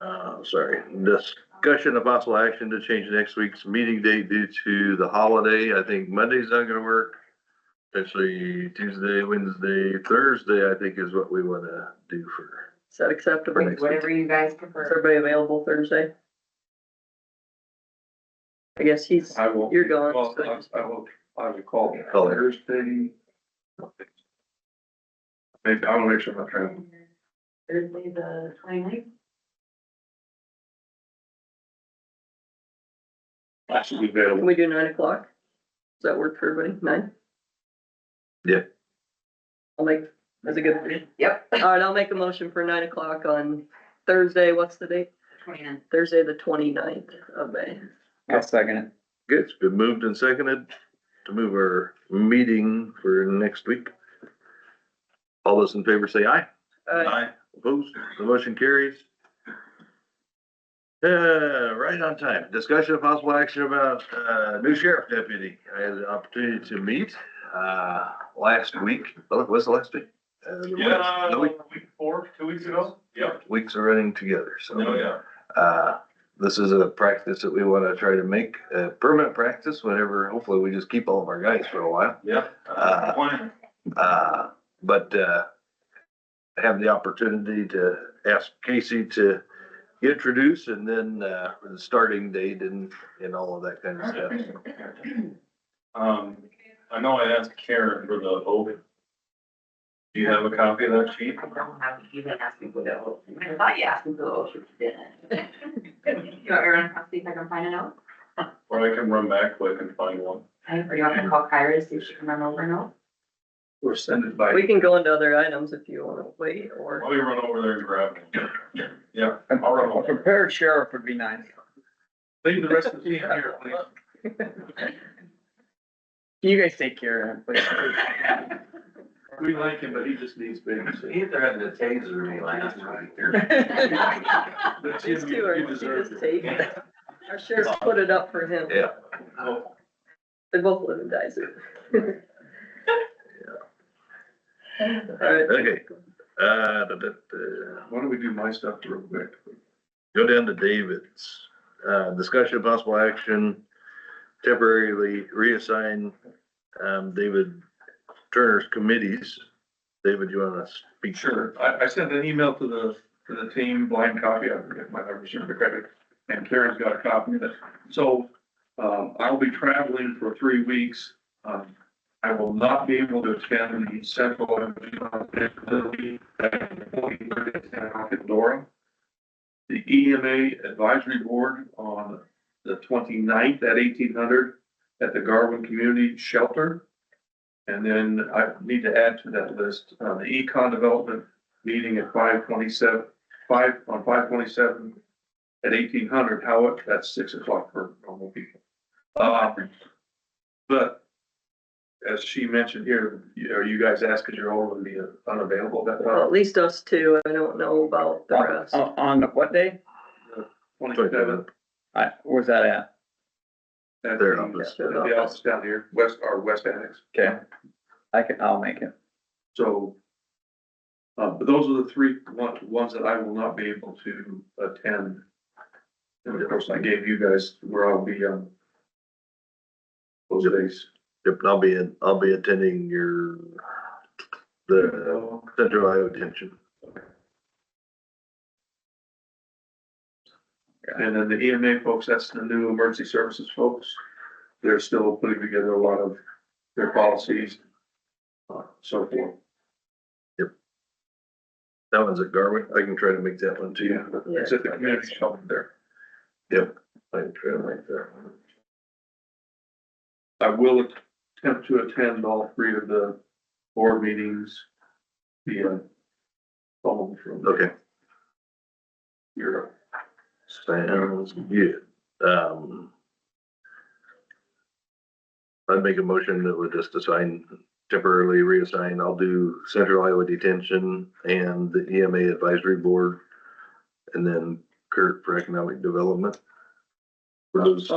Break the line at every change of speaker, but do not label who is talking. uh, sorry, discussion of possible action to change next week's meeting date due to the holiday. I think Monday's not gonna work. Actually, Tuesday, Wednesday, Thursday, I think is what we wanna do for.
Is that acceptable?
Next week.
Whatever you guys
Is
prefer.
everybody available Thursday? I guess he's,
I will.
You're going.
Well, I I will, I will call
Call it.
Thursday. Maybe, I'll make sure my friend,
Thursday, the twenty-ninth?
I should be
can
available.
we do nine o'clock? Does that work for everybody? Nine?
Yeah.
I'll make, that's a good,
Yep.
all right, I'll make a motion for nine o'clock on Thursday, what's the date?
Twenty-nine.
Thursday, the twenty-ninth of May.
I'll second it.
Good, it's been moved and seconded to move our meeting for next week. All those in favor say aye.
Uh,
Opposed, the motion carries. Uh, right on time. Discussion of possible action about, uh, new sheriff deputy. I had the opportunity to meet, uh, last week. Well, was the last week? Uh, the
Yeah,
weeks- the week-
week four, two weeks ago, yep,
Weeks are running together, so.
oh, yeah.
Uh, this is a practice that we wanna try to make a permanent practice whenever, hopefully we just keep all of our guys for a while.
Yeah.
Uh, Uh, but, uh, I have the opportunity to ask Casey to introduce and then, uh, the starting date and, and all of that kind of stuff.
Um, I know I asked Karen for the oath. Do you have a copy of that sheet?
I don't have, you didn't ask me for the oath. I thought you asked me for the oath, you didn't. You want everyone to see if I can find a note?
Or I can run back quick and find one.
Or you want me to call Kyra to see if she can run over a note?
Or send it by.
we can go into other items if you wanna wait, or
Let me run over there and grab it. Yeah, I'll run
A
over.
prepared sheriff would be nice.
Leave the rest of the team here, please.
You guys take care of him, please.
We like him, but he just needs babysitting.
Either had a taser me last week.
But
These
Jimmy,
two are-
you deserve
he just
it.
take- our sheriff's put it up for him.
Yeah.
Oh,
They both live in Dyson. All right.
Okay. Uh, da, da, da.
Why don't we do my stuff real quick?
Go down to David's, uh, discussion of possible action, temporarily reassign, um, David Turner's committees. David, you wanna speak?
Sure, I, I sent an email to the, to the team, blind copy, I forget my number, sure, the credit, and Karen's got a copy of it. So, um, I'll be traveling for three weeks. Um, I will not be able to attend the central. Energy Facility at 20:30 in San Alcatora. The EMA Advisory Board on the 29th at eighteen hundred at the Garwin Community Shelter. And then I need to add to that list, uh, the econ development meeting at five twenty-seven, five, on five twenty-seven at eighteen hundred, how, that's six o'clock for normal people. Um, but as she mentioned here, you- are you guys asked, cause you're all gonna be unavailable that
Well,
time?
at least us two, I don't know about the rest.
On, Oh, on what day?
Twenty-seven,
I, where's that at?
at
Their
the,
office.
at the office down here, west, or west annex.
Okay. I can, I'll make it.
So. Uh, but those are the three one- ones that I will not be able to attend. And of course, I gave you guys where I'll be, um. Those days.
Yep, and I'll be in, I'll be attending your, the Central Iowa Detention.
And then the EMA folks, that's the new emergency services folks. They're still putting together a lot of their policies. uh, So forth,
That one's at Garwin. I can try to make that one
so
too.
yeah, it's at the community shelter there.
I can try to make that one.
I will attempt to attend all three of the board meetings. via phone from
Okay,
Europe.
sounds good. Um. I'd make a motion that would just assign, temporarily reassign. I'll do Central Iowa Detention and the EMA Advisory Board. And then Kurt for Economic Development. For those